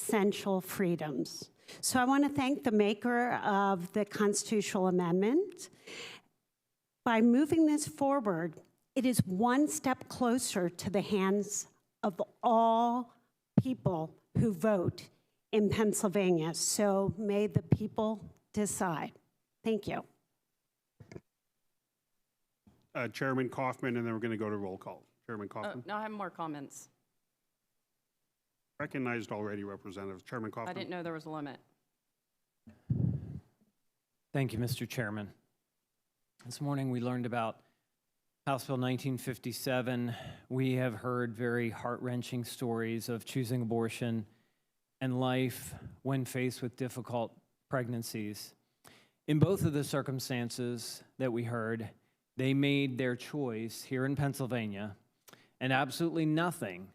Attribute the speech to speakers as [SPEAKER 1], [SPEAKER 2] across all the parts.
[SPEAKER 1] essential freedoms. So I want to thank the maker of the constitutional amendment. By moving this forward, it is one step closer to the hands of all people who vote in Pennsylvania. So may the people decide. Thank you.
[SPEAKER 2] Uh, Chairman Kaufman, and then we're going to go to roll call. Chairman
[SPEAKER 3] Oh,
[SPEAKER 2] Kaufman,
[SPEAKER 3] No, I have more comments.
[SPEAKER 2] recognized already representative. Chairman
[SPEAKER 3] I didn't
[SPEAKER 2] Kaufman,
[SPEAKER 3] know there was a limit.
[SPEAKER 4] Thank you, Mr. Chairman. This morning, we learned about House Bill 1957. We have heard very heart wrenching stories of choosing abortion and life when faced with difficult pregnancies. In both of the circumstances that we heard, they made their choice here in Pennsylvania, and absolutely nothing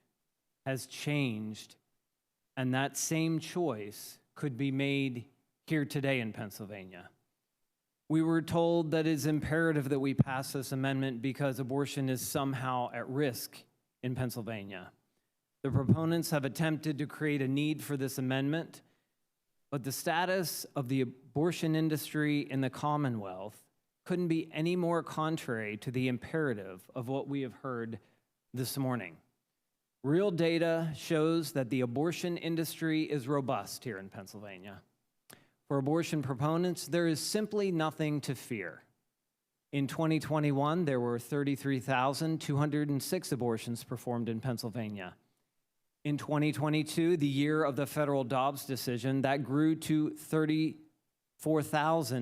[SPEAKER 4] has changed. And that same choice could be made here today in Pennsylvania. We were told that it's imperative that we pass this amendment because abortion is somehow at risk in Pennsylvania. The proponents have attempted to create a need for this amendment, but the status of the abortion industry in the Commonwealth couldn't be any more contrary to the imperative of what we have heard this morning. Real data shows that the abortion industry is robust here in Pennsylvania. For abortion proponents, there is simply nothing to fear. In 2021, there were 33,206 abortions performed in Pennsylvania. In 2022, the year of the federal Dobbs decision, that grew to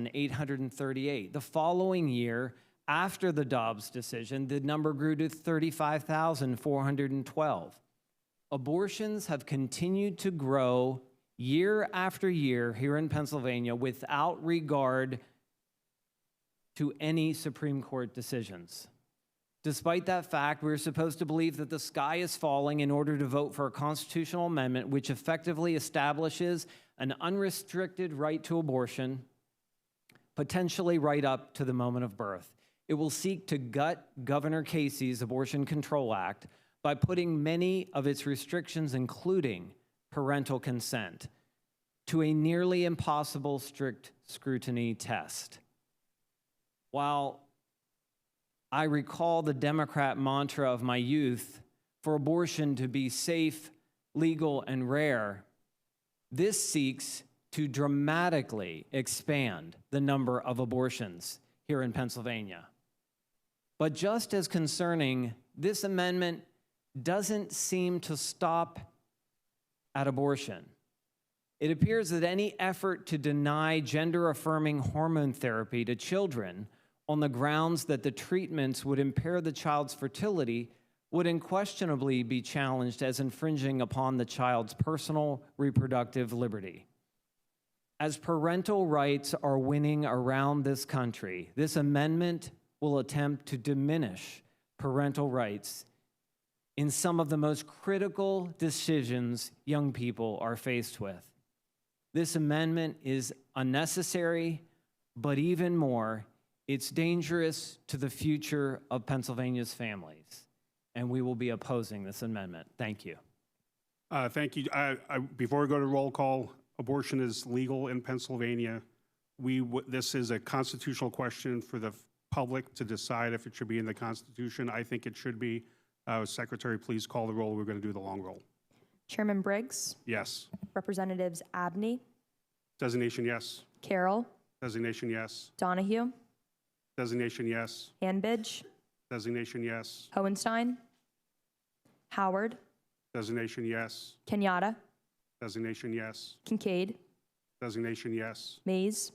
[SPEAKER 4] 34,838. The following year, after the Dobbs decision, the number grew to 35,412 abortions have continued to grow year after year here in Pennsylvania without regard to any Supreme Court decisions. Despite that fact, we're supposed to believe that the sky is falling in order to vote for a constitutional amendment which effectively establishes an unrestricted right to abortion, potentially right up to the moment of birth. It will seek to gut Governor Casey's Abortion Control Act by putting many of its restrictions, including parental consent, to a nearly impossible strict scrutiny test. While I recall the Democrat mantra of my youth for abortion to be safe, legal, and rare, this seeks to dramatically expand the number of abortions here in Pennsylvania. But just as concerning, this amendment doesn't seem to stop at abortion. It appears that any effort to deny gender affirming hormone therapy to children on the grounds that the treatments would impair the child's fertility would unquestionably be challenged as infringing upon the child's personal reproductive liberty. As parental rights are winning around this country, this amendment will attempt to diminish parental rights in some of the most critical decisions young people are faced with. This amendment is unnecessary, but even more, it's dangerous to the future of Pennsylvania's families. And we will be opposing this amendment. Thank you.
[SPEAKER 2] uh, thank you. I, I, before we go to roll call, abortion is legal in Pennsylvania. We, w- this is a constitutional question for the public to decide if it should be in the Constitution. I think it should be. Uh, Secretary, please call the roll. We're going to do the long roll.
[SPEAKER 5] Chairman Briggs,
[SPEAKER 2] Yes.
[SPEAKER 5] Representatives Abney,
[SPEAKER 2] Designation, yes.
[SPEAKER 5] Carroll,
[SPEAKER 2] Designation, yes.
[SPEAKER 5] Donahue,
[SPEAKER 2] Designation, yes.
[SPEAKER 5] Hanbidge,
[SPEAKER 2] Designation, yes.
[SPEAKER 5] Hohenstein, Howard,
[SPEAKER 2] Designation, yes.
[SPEAKER 5] Kenyatta,
[SPEAKER 2] Designation, yes.
[SPEAKER 5] Kincaid,
[SPEAKER 2] Designation, yes.
[SPEAKER 5] Mays,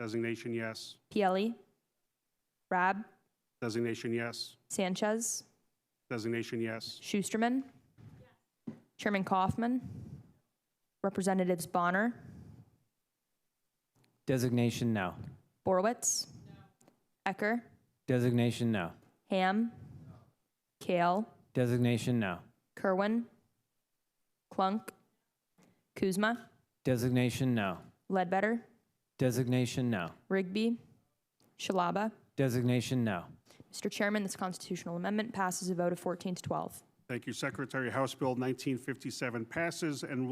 [SPEAKER 2] Designation, yes.
[SPEAKER 5] Pielli, Rab,
[SPEAKER 2] Designation, yes.
[SPEAKER 5] Sanchez,
[SPEAKER 2] Designation, yes.
[SPEAKER 5] Schusterman, Chairman Kaufman, Representatives Bonner,
[SPEAKER 4] Designation no.
[SPEAKER 5] Borowitz, Ecker,
[SPEAKER 4] Designation no.
[SPEAKER 5] Ham, Kale,
[SPEAKER 4] Designation no.
[SPEAKER 5] Kerwin, Clunk, Kuzma,
[SPEAKER 4] Designation no.
[SPEAKER 5] Ledbetter,
[SPEAKER 4] Designation no.
[SPEAKER 5] Rigby, Shalaba.
[SPEAKER 4] Designation no.
[SPEAKER 5] Mr. Chairman, this constitutional amendment passes a vote of 14 to 12.
[SPEAKER 2] Thank you, Secretary. House Bill 1957 passes and